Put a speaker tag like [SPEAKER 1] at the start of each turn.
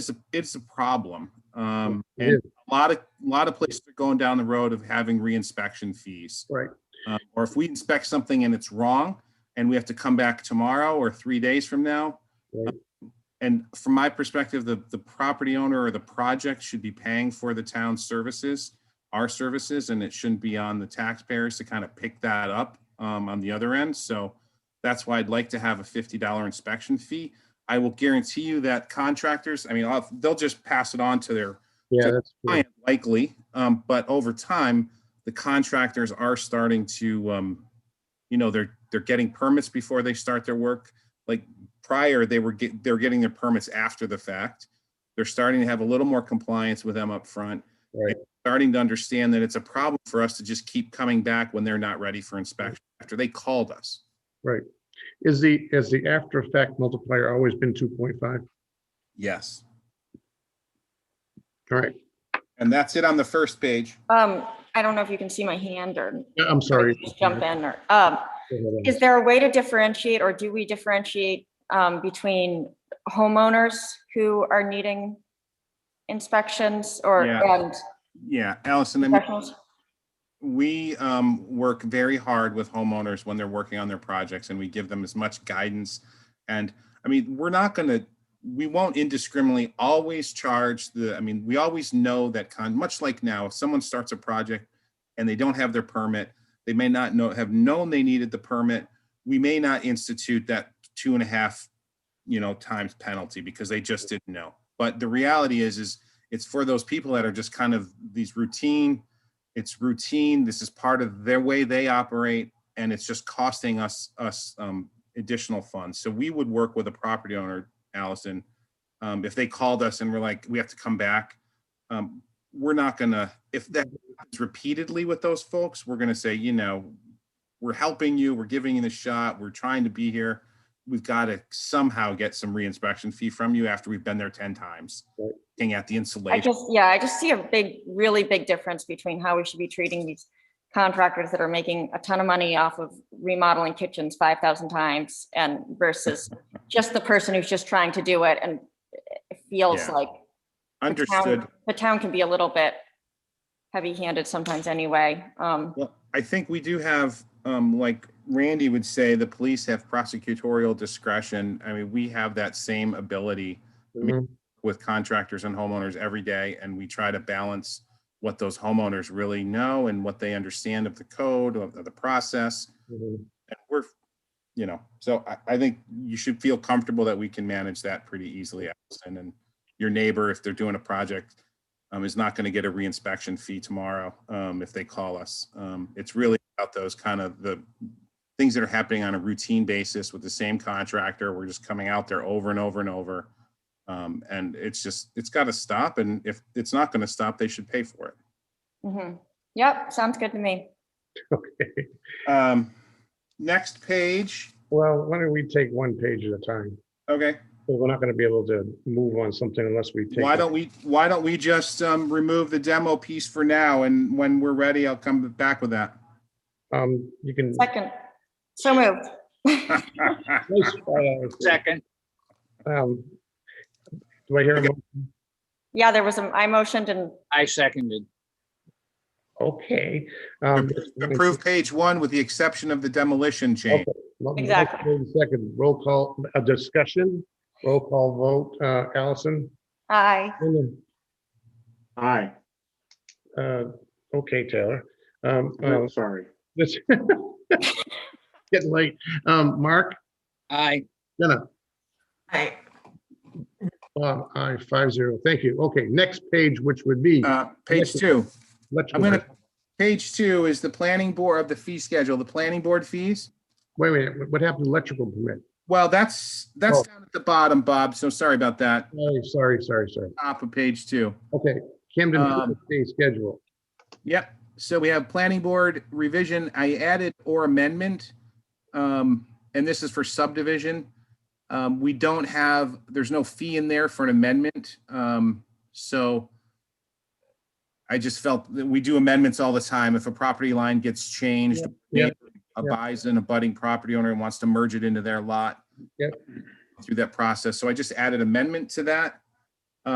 [SPEAKER 1] it's a, it's a problem. Um,
[SPEAKER 2] It
[SPEAKER 1] and a lot of, a lot of places are going down the road of having reinspection fees.
[SPEAKER 2] Right.
[SPEAKER 1] Um, Or if we inspect something and it's wrong and we have to come back tomorrow or three days from now. um,
[SPEAKER 2] Right.
[SPEAKER 1] And from my perspective, the, the property owner or the project should be paying for the town's services, our services, and it shouldn't be on the taxpayers to kind of pick that up um, on the other end. So that's why I'd like to have a fifty dollar inspection fee. I will guarantee you that contractors, I mean, I'll- they'll just pass it on to their
[SPEAKER 2] Yeah,
[SPEAKER 1] So-
[SPEAKER 2] that's, true.
[SPEAKER 1] client likely, um, but over time, the contractors are starting to, um, you know, they're, they're getting permits before they start their work. Like prior, they were get, they're getting their permits after the fact. They're starting to have a little more compliance with them up front.
[SPEAKER 2] Right.
[SPEAKER 1] Starting to understand that it's a problem for us to just keep coming back when they're not ready for inspection after they called us.
[SPEAKER 2] right. Is the, has the after effect multiplier always been two point five?
[SPEAKER 1] Yes.
[SPEAKER 2] All right,
[SPEAKER 1] And that's it on the first page.
[SPEAKER 3] Um, I don't know if you can see my hand or
[SPEAKER 2] Yeah, I'm sorry.
[SPEAKER 3] just jump in or, um, is there a way to differentiate or do we differentiate um, between homeowners who are needing inspections or,
[SPEAKER 1] Yeah.
[SPEAKER 3] and
[SPEAKER 1] Yeah, Allison, I mean,
[SPEAKER 3] professionals?
[SPEAKER 1] we um, work very hard with homeowners when they're working on their projects and we give them as much guidance. And I mean, we're not gonna, we won't indiscriminately always charge the, I mean, we always know that con, much like now, if someone starts a project and they don't have their permit, they may not know, have known they needed the permit. We may not institute that two and a half, you know, times penalty because they just didn't know. But the reality is, is it's for those people that are just kind of these routine it's routine. This is part of their way they operate, and it's just costing us us um, additional funds. So we would work with a property owner, Allison, um, if they called us and were like, "We have to come back." Um, we're not gonna. If that happens repeatedly with those folks, we're gonna say, you know, we're helping you. We're giving you the shot. We're trying to be here. We've got to somehow get some reinspection fee from you after we've been there ten times.
[SPEAKER 2] Right.
[SPEAKER 1] Looking at the
[SPEAKER 3] I
[SPEAKER 1] insulation.
[SPEAKER 3] just, yeah, I just see a big, really big difference between how we should be treating these contractors that are making a ton of money off of remodeling kitchens five thousand times and versus just the person who's just trying to do it and it feels
[SPEAKER 1] Yeah.
[SPEAKER 3] like the town-
[SPEAKER 1] Understood.
[SPEAKER 3] The town can be a little bit heavy-handed sometimes anyway. Um,
[SPEAKER 1] Well, I think we do have, um, like Randy would say, the police have prosecutorial discretion. I mean, we have that same ability
[SPEAKER 2] Mhm.
[SPEAKER 1] with contractors and homeowners every day, and we try to balance what those homeowners really know and what they understand of the code, of of the process.
[SPEAKER 2] Mhm.
[SPEAKER 1] And we're, you know, so I, I think you should feel comfortable that we can manage that pretty easily. Allison. And your neighbor, if they're doing a project, um, is not going to get a reinspection fee tomorrow, um, if they call us. Um, it's really about those kind of the things that are happening on a routine basis with the same contractor. We're just coming out there over and over and over. Um, and it's just, it's got to stop. And if it's not going to stop, they should pay for it.
[SPEAKER 3] mhm. Yep, sounds good to me.
[SPEAKER 2] Okay.
[SPEAKER 1] Um, next page.
[SPEAKER 2] Well, why don't we take one page at a time?
[SPEAKER 1] Okay.
[SPEAKER 2] Well, We're not going to be able to move on something unless we take.
[SPEAKER 1] Why don't we, why don't we just um, remove the demo piece for now, and when we're ready, I'll come back with that.
[SPEAKER 2] Um, you can.
[SPEAKER 3] Second, so moved.
[SPEAKER 2] Nice, uh,
[SPEAKER 4] Second,
[SPEAKER 2] um, Do I hear, a mo-
[SPEAKER 3] Yeah, there was a, I motioned and,
[SPEAKER 4] I seconded.
[SPEAKER 2] okay. um,
[SPEAKER 1] Approve page one with the exception of the demolition change.
[SPEAKER 2] mo-
[SPEAKER 3] Exactly.
[SPEAKER 2] motion Second, roll call, a discussion, roll call vote, uh, Allison?
[SPEAKER 3] aye,
[SPEAKER 5] Aye,
[SPEAKER 2] Uh, okay, Taylor. Um, uh,
[SPEAKER 5] no, sorry.
[SPEAKER 2] this- Getting late. Um, Mark,
[SPEAKER 4] I,
[SPEAKER 2] Jenna? Aye. Bob, aye, uh, five zero. Thank you. Okay, next page, which would be.
[SPEAKER 1] Uh, Page two,
[SPEAKER 2] Let's-
[SPEAKER 1] I'm gonna, page two is the planning board of the fee schedule, the planning board fees.
[SPEAKER 2] Wait, wait, what happened to electrical permit?
[SPEAKER 1] Well, that's, that's
[SPEAKER 2] Oh.
[SPEAKER 1] down at the bottom, Bob, so sorry about that,
[SPEAKER 2] Oh, sorry, sorry, sorry.
[SPEAKER 1] top of page two.
[SPEAKER 2] Okay, Camden
[SPEAKER 1] Um,
[SPEAKER 2] Day schedule.
[SPEAKER 1] Yep, so we have planning board revision, I added or amendment. Um, and this is for subdivision. Um, we don't have, there's no fee in there for an amendment, um, so. I just felt that we do amendments all the time. If a property line gets changed.
[SPEAKER 2] Yeah, yeah,
[SPEAKER 1] A
[SPEAKER 2] yeah.
[SPEAKER 1] buys an abutting property owner and wants to merge it into their lot.
[SPEAKER 2] Yep.
[SPEAKER 1] Through that process, so I just added amendment to that.